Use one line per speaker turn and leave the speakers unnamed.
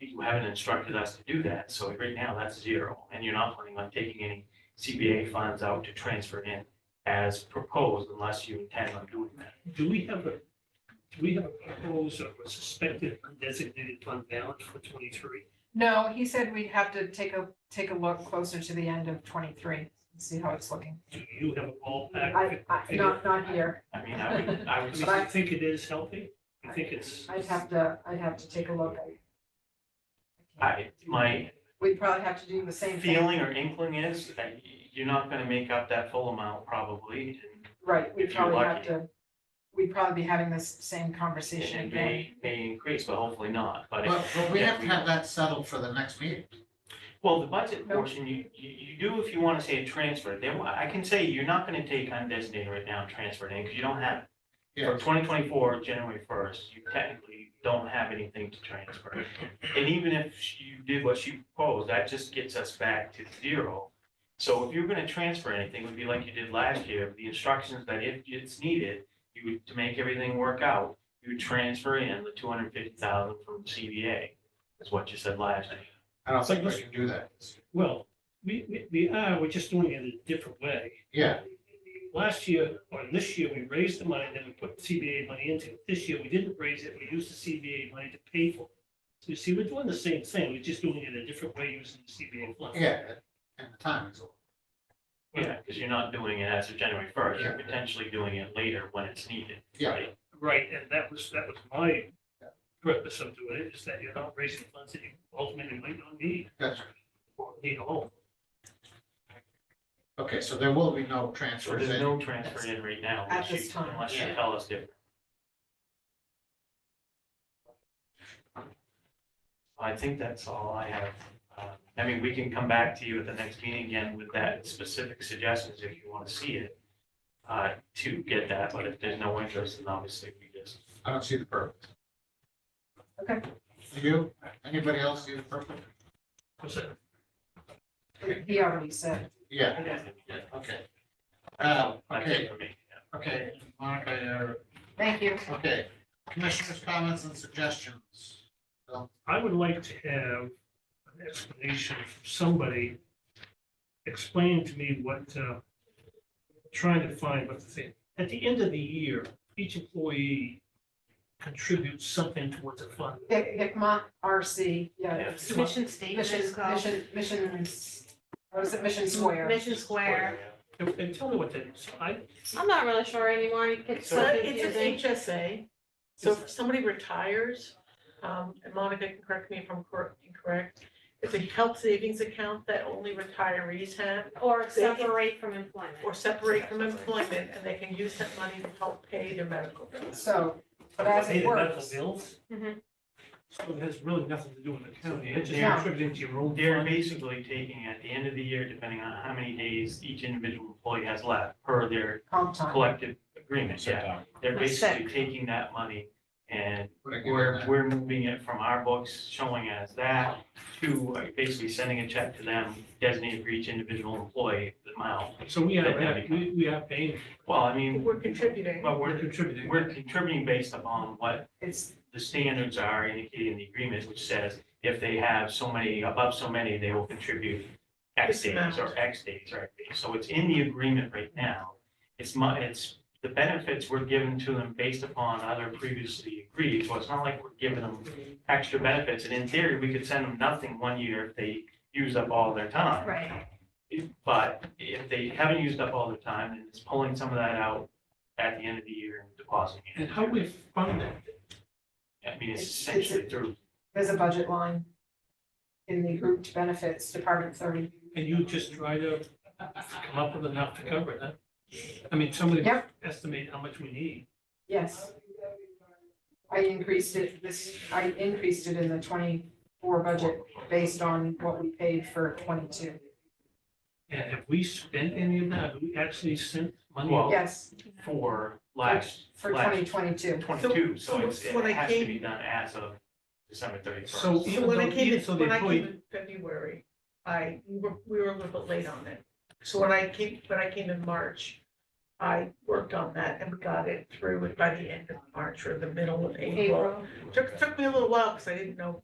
you haven't instructed us to do that, so right now that's zero, and you're not planning on taking any CBA funds out to transfer in as proposed unless you intend on doing that.
Do we have a, do we have a proposed or a suspected undesignated fund balance for twenty-three?
No, he said we'd have to take a, take a look closer to the end of twenty-three, and see how it's looking.
Do you have a
Uh,
ballpark?
I, I, not, not here.
I mean, I would, I
I
would,
mean, I think it is healthy. I think it's.
I'd have to, I'd have to take a look.
I, my
We'd probably have to do the same thing.
feeling or inkling is that you're not gonna make up that full amount probably. and-
Right, we'd
if you're
probably have
lucky.
to, we'd probably be having this same conversation
And it
again.
may, may increase, but hopefully not, but. if-
But, but we
if
have to have that settled for the next meeting.
Well, the budget portion, you, you, you do if you wanna say a transfer, then I can say you're not gonna take undesignated right now and transfer it in, cause you don't have. it. For
Yeah.
twenty twenty-four, January first, you technically don't have anything to transfer. And even if you did what she proposed, that just gets us back to zero. So if you're gonna transfer anything, it would be like you did last year, the instructions that if it's needed, you would, to make everything work out, you would transfer in the two hundred fifty thousand from CBA, is what you said last year.
I don't think we can do that.
Well, we, we, we are, we're just doing it a different way.
Yeah,
Last year, or this year, we raised the money that we put CBA money into. it. This year, we didn't raise it, we used the CBA money to pay for it. So you see, we're doing the same thing, we're just doing it a different way using the CBA fund.
yeah, and the time is.
Yeah, because you're not doing it as of January first, you're potentially doing it later when it's needed.
Yeah.
right?
Right, and that was, that was my purpose of doing it, is that you're not raising funds that you ultimately might not need,
That's,
or need at all.
okay, so there will be no
So
transfers
there's
in.
no transfer in right now.
At
unless you-
this time.
Unless you
Yeah.
tell us different. I think that's all I have. Uh, I mean, we can come back to you at the next meeting again with that specific suggestions if you want to see it. Uh, to get that, but if there's no interest, then obviously we just,
I don't see the purpose.
Okay.
Do You, anybody else see the purpose?
Was it,
He already said.
Yeah, okay. Uh,
that's
okay,
it for me. yeah.
okay, Monica,
Thank you.
uh, okay, commissioners' comments and suggestions.
I would like to have an explanation from somebody, explain to me what, uh, trying to find what the thing, at the end of the year, each employee contributes something towards a fund.
Vic, Vicmont RC, yeah.
Yeah.
it's
Mission
Mission,
statement is called.
mission, mission, what is it, Mission Square?
Mission Square.
And and tell me what that is, I,
I'm not really sure anymore. It gets so
So it's an
confusing.
HSA, so if somebody retires, um, and Monica can correct me if I'm cor- incorrect, it's a health savings account that only retirees have,
Or separate from employment.
or separate from employment, and they can use that money to help pay their medical bills.
So, but as
Pay
it
the medical
works,
bills?
Mhm.
So it has really nothing to do with the county, it's just
Yeah.
contributing to your own
They're
fund.
basically taking at the end of the year, depending on how many days each individual employee has left per their
comp time.
collective agreement, yeah.
Yeah.
They're
That's
basically taking that money and
Would I give
we're,
that?
we're moving it from our books, showing as that to like, basically sending a check to them designated for each individual employee the amount.
So we
That-
are,
that'd be-
we, we are paying,
Well, I
Mm.
mean,
We're contributing,
but
we're
we're,
contributing.
we're contributing based upon what
It's,
the standards are indicated in the agreement, which says if they have so many, above so many, they will contribute X
This
days or X days, right? So it's in the agreement right now. It's my, it's, the benefits were given to them based upon other previously agreed, so it's not like we're giving them extra benefits. And in theory, we could send them nothing one year if they use up all their time.
Right.
But if they haven't used up all their time, then it's pulling some of that out at the end of the year and depositing it.
And how we fund it,
I mean, it's
It's- it's-
essentially through
there's a budget line in the grouped benefits, Department thirty.
and you just try to uh, come up with enough to cover it, huh? I mean, somebody
Yep.
estimate how much we need.
Yes. I increased it this, I increased it in the twenty-four budget based on what we paid for twenty-two.
And have we spent any of that, have we actually sent money?
Well,
Yes,
for last,
for twenty
last
twenty-two.
twenty-two,
so
so it's, it
when I
has to
came-
be done as of December thirty-first.
So
so
even
when I
though,
came,
even
in-
so the
when I came
employee,
in February, I, we were, we were a little bit late on it. So when I came, when I came in March, I worked on that and we got it through, and by the end of March or the middle of April, Took, took me a little while because I didn't know